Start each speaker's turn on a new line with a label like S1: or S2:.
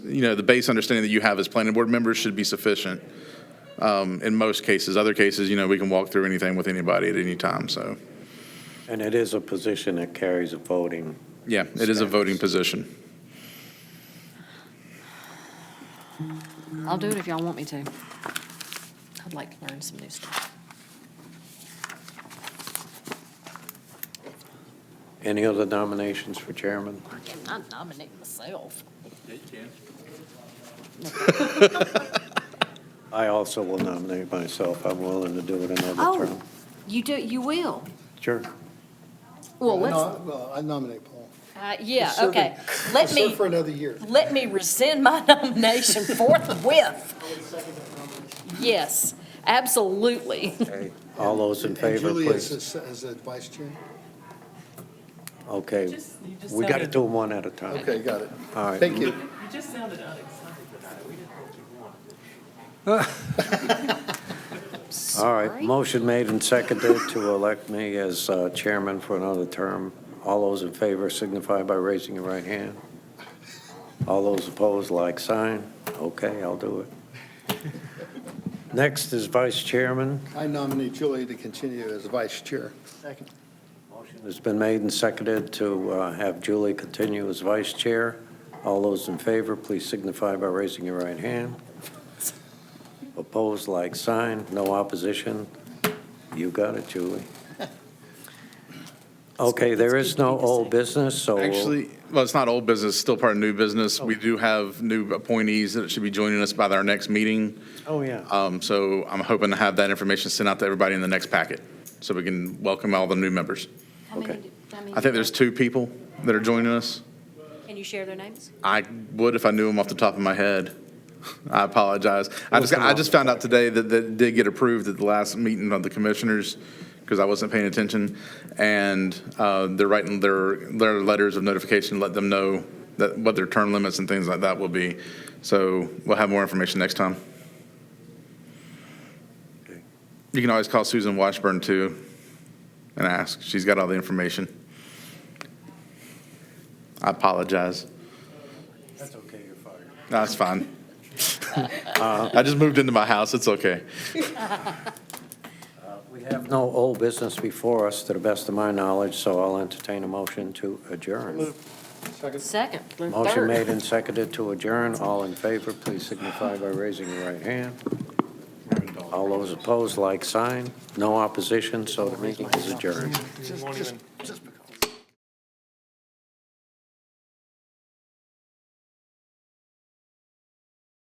S1: you know, the base understanding that you have as planning board members should be sufficient um, in most cases. Other cases, you know, we can walk through anything with anybody at any time, so.
S2: And it is a position that carries a voting.
S1: Yeah, it is a voting position.
S3: I'll do it if y'all want me to. I'd like to learn some new stuff.
S2: Any other nominations for chairman?
S3: I cannot nominate myself.
S2: I also will nominate myself. I'm willing to do it another
S3: Oh.
S2: term.
S3: You do, you will.
S2: Sure.
S3: Well, let's,
S4: No, Well, I nominate Paul.
S3: uh, yeah,
S4: Serve
S3: okay.
S4: him-
S3: Let
S4: Serve
S3: me,
S4: for another year.
S3: let me rescind my nomination forthwith. Yes, absolutely.
S2: All those in
S4: And
S2: favor,
S4: Julie is
S2: please.
S4: as as a vice chair?
S2: Okay, we got to do them one at a time.
S4: Okay, got it.
S2: All right.
S4: Thank you.
S5: You just sounded unexcited about it. We didn't know what you wanted.
S2: All right,
S3: Sorry.
S2: motion made and seconded to elect me as uh, chairman for another term. All those in favor signify by raising your right hand. All those opposed, like sign. Okay, I'll do it. Next is vice chairman.
S4: I nominate Julie to continue as vice chair. Second.
S2: It's been made and seconded to uh, have Julie continue as vice chair. All those in favor, please signify by raising your right hand. Opposed, like sign. No opposition. You got it, Julie. Okay, there is no old business, so we'll-
S1: Actually, well, it's not old business, it's still part of new business. We do have new appointees that should be joining us by our next meeting.
S2: Oh, yeah.
S1: Um, So I'm hoping to have that information sent out to everybody in the next packet, so we can welcome all the new members.
S3: How many
S2: Okay.
S3: do- how many
S1: I think there's two people that are joining us.
S3: Can you share their names?
S1: I would if I knew them off the top of my head. I apologize. I just, I just found out today that that did get approved at the last meeting of the commissioners because I wasn't paying attention. And uh, they're writing their, their letters of notification, let them know that, what their term limits and things like that will be. So we'll have more information next time. You can always call Susan Washburn too and ask. She's got all the information. I apologize.
S2: That's okay, you're fired.
S1: That's fine. I just moved into my house. It's okay.
S2: We have no old business before us, to the best of my knowledge, so I'll entertain a motion to adjourn.
S3: Second, third.
S2: Motion made and seconded to adjourn. All in favor, please signify by raising your right hand. All those opposed, like sign. No opposition, so the meeting is adjourned.
S4: Just, just